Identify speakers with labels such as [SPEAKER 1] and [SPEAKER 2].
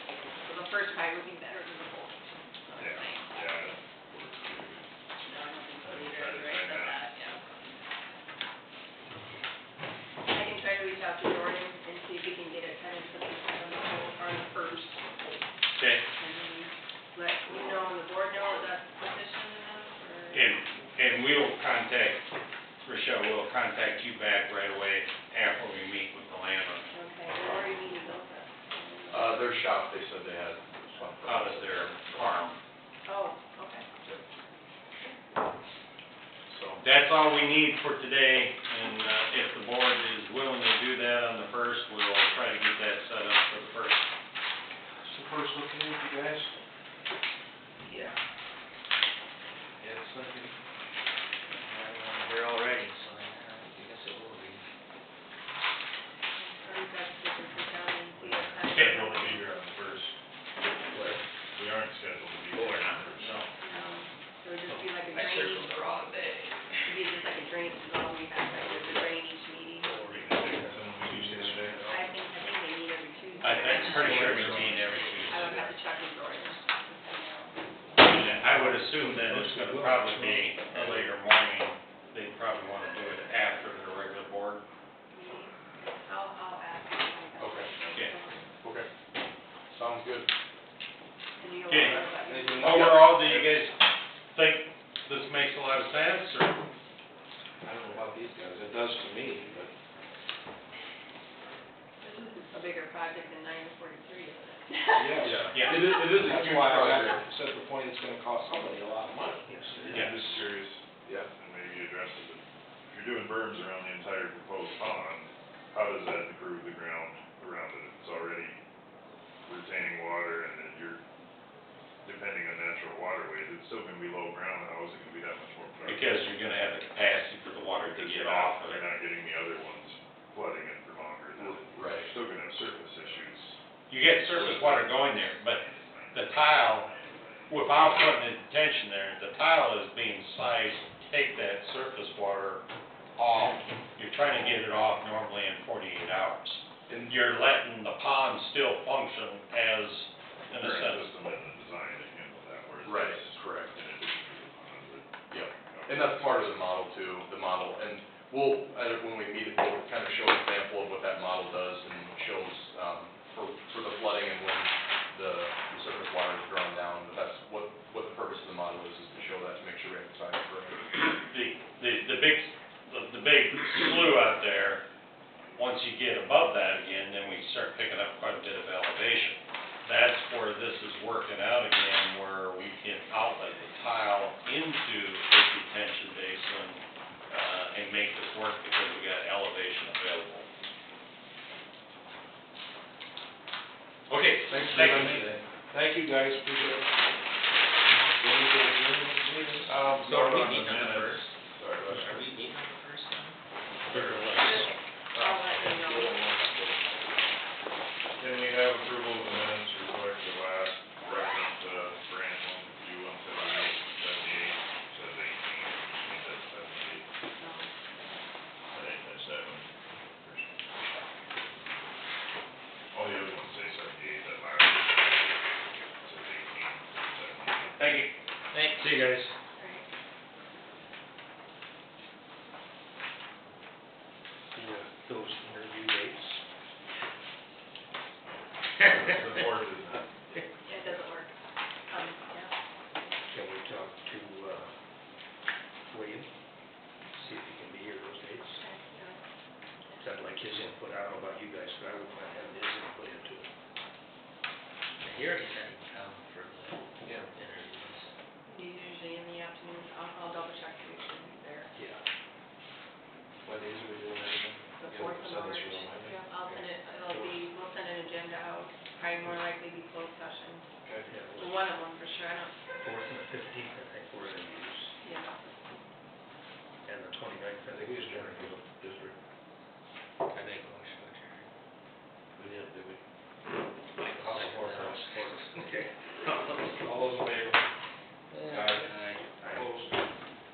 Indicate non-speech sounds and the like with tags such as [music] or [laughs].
[SPEAKER 1] first pie would be better than the whole. so
[SPEAKER 2] Yeah,
[SPEAKER 1] I'm saying.
[SPEAKER 2] yeah.
[SPEAKER 1] No, I don't think so
[SPEAKER 2] I'm
[SPEAKER 1] either,
[SPEAKER 2] trying to
[SPEAKER 1] right, but
[SPEAKER 2] find out.
[SPEAKER 1] that, yeah. I can try to reach out to Jordan and see if we can get it kind of put on the whole, on the first,
[SPEAKER 2] Okay,
[SPEAKER 1] and then let you know, and the board know if that's position enough, or?
[SPEAKER 2] and, and we'll contact, Rochelle, we'll contact you back right away after we meet with the landlord.
[SPEAKER 1] Okay, where are you meeting those at?
[SPEAKER 3] Uh, their shop, they said they had something.
[SPEAKER 2] Out of their farm.
[SPEAKER 1] Oh, okay.
[SPEAKER 3] So,
[SPEAKER 2] That's all we need for today, and, uh, if the board is willing to do that on the first, we'll try to get that set up for the first.
[SPEAKER 3] so first looking at you guys?
[SPEAKER 4] Yeah,
[SPEAKER 3] Yeah, it's looking.
[SPEAKER 4] I'm here already, so I guess it will be.
[SPEAKER 1] Or you guys can just sit down and see what time.
[SPEAKER 5] Scheduled to be here on the first. We aren't scheduled to be here.
[SPEAKER 4] Oh, we're not.
[SPEAKER 5] No.
[SPEAKER 1] Um, So it'd just be like a
[SPEAKER 4] I circled
[SPEAKER 1] drainage,
[SPEAKER 4] the wrong day.
[SPEAKER 1] it'd be just like a drainage, is all we have, like a drainage meeting.
[SPEAKER 5] We're gonna do something we used to do.
[SPEAKER 1] I think, I think they meet every Tuesday.
[SPEAKER 2] I, I'm pretty sure we meet every
[SPEAKER 1] I would have to
[SPEAKER 2] Tuesday.
[SPEAKER 1] check with Jordan.
[SPEAKER 2] I would assume that it's gonna probably be a later morning, they probably wanna do it after their regular board.
[SPEAKER 1] I'll, I'll ask.
[SPEAKER 3] Okay,
[SPEAKER 2] yeah.
[SPEAKER 3] Okay. Sounds good.
[SPEAKER 1] And you'll.
[SPEAKER 2] Okay.
[SPEAKER 3] Anything else?
[SPEAKER 2] Overall, do you guys think this makes a lot of sense, or?
[SPEAKER 3] I don't know about these guys, it does to me, but.
[SPEAKER 1] This is a bigger project than nine forty-three, isn't it?
[SPEAKER 2] [laughs] Yeah.
[SPEAKER 3] It is, it is a
[SPEAKER 5] That's
[SPEAKER 3] huge
[SPEAKER 5] why I
[SPEAKER 3] project, except the point it's gonna cost somebody a lot of money.
[SPEAKER 2] Yeah.
[SPEAKER 5] I'm just curious,
[SPEAKER 3] Yeah.
[SPEAKER 5] and maybe address it, but if you're doing berms around the entire proposed pond, how does that improve the ground around it? It's already retaining water and then you're depending on natural waterways, it's still gonna be low ground, how is it gonna be that much more? productive?
[SPEAKER 2] Because you're gonna have the capacity for the water to
[SPEAKER 5] Because
[SPEAKER 2] get
[SPEAKER 5] you're not-
[SPEAKER 2] off of
[SPEAKER 5] You're
[SPEAKER 2] it.
[SPEAKER 5] not getting the other ones flooding it for longer, than
[SPEAKER 3] Right.
[SPEAKER 5] you're still gonna have surface issues.
[SPEAKER 2] You get surface water going there, but the tile, without putting the detention there, the tile is being sized to take that surface water off. You're trying to get it off normally in forty-eight hours.
[SPEAKER 3] And
[SPEAKER 2] You're letting the pond still function as, in a
[SPEAKER 5] Current
[SPEAKER 2] sense,
[SPEAKER 5] system and the design to handle that, whereas
[SPEAKER 3] Right,
[SPEAKER 5] this-
[SPEAKER 3] correct.
[SPEAKER 5] in addition to the pond, but-
[SPEAKER 3] Yep. And that's part of the model too, the model, and we'll, uh, when we meet, we'll kind of show an example of what that model does and shows, um, for, for the flooding and when the the surface water is drawn down, but that's what, what the purpose of the model is, is to show that, to make sure we have science correct.
[SPEAKER 2] the, the, the big, the- the big slough out there, once you get above that again, then we start picking up quite a bit of elevation. That's where this is working out again, where we can outlet the tile into a detention basin, uh, and make this work because we got elevation available. Okay,
[SPEAKER 3] Thanks for
[SPEAKER 2] thank
[SPEAKER 3] your
[SPEAKER 2] you.
[SPEAKER 3] time today. Thank you, guys, appreciate it. Any other adjournments needed? Um,
[SPEAKER 4] So are we
[SPEAKER 3] on the
[SPEAKER 4] meeting on the
[SPEAKER 3] minutes.
[SPEAKER 4] first?
[SPEAKER 3] Sorry,
[SPEAKER 4] Are
[SPEAKER 3] let's-
[SPEAKER 4] we meeting on the first then?
[SPEAKER 1] I'll let you know.
[SPEAKER 5] Can we have approval of the minutes to reflect the last reference, uh, grant one, you one seventy-eight, seventy-eight, says eighteen, we said seventy-eight, I didn't catch that one. All the other ones say seventy-eight, that last one says eighteen, seventy-eight.
[SPEAKER 2] Thank you.
[SPEAKER 4] Thanks.
[SPEAKER 2] See you guys.
[SPEAKER 1] Alright.
[SPEAKER 4] Those interview dates.
[SPEAKER 5] The board is not.
[SPEAKER 1] Yeah, It doesn't work. Um, yeah.
[SPEAKER 4] Can we talk to, uh, William? See if he can be here those dates. Cause I'd like his input. I don't know about you guys, but I would like to have his input into it. He already said he'd come for the
[SPEAKER 3] Yeah.
[SPEAKER 4] interviews.
[SPEAKER 1] He's usually in the afternoon, I'll, I'll double check to make sure he's there.
[SPEAKER 4] Yeah.
[SPEAKER 3] What days are we doing everything?
[SPEAKER 1] The
[SPEAKER 3] Yeah,
[SPEAKER 1] fourth of
[SPEAKER 3] send this
[SPEAKER 1] March.
[SPEAKER 3] to me.
[SPEAKER 1] Yeah, I'll send it, it'll be, we'll send an agenda out, probably more likely be closed session.
[SPEAKER 3] Okay.
[SPEAKER 4] Yeah, it was
[SPEAKER 1] One of them for sure, I don't,
[SPEAKER 4] fourth and the fifteenth. [laughs]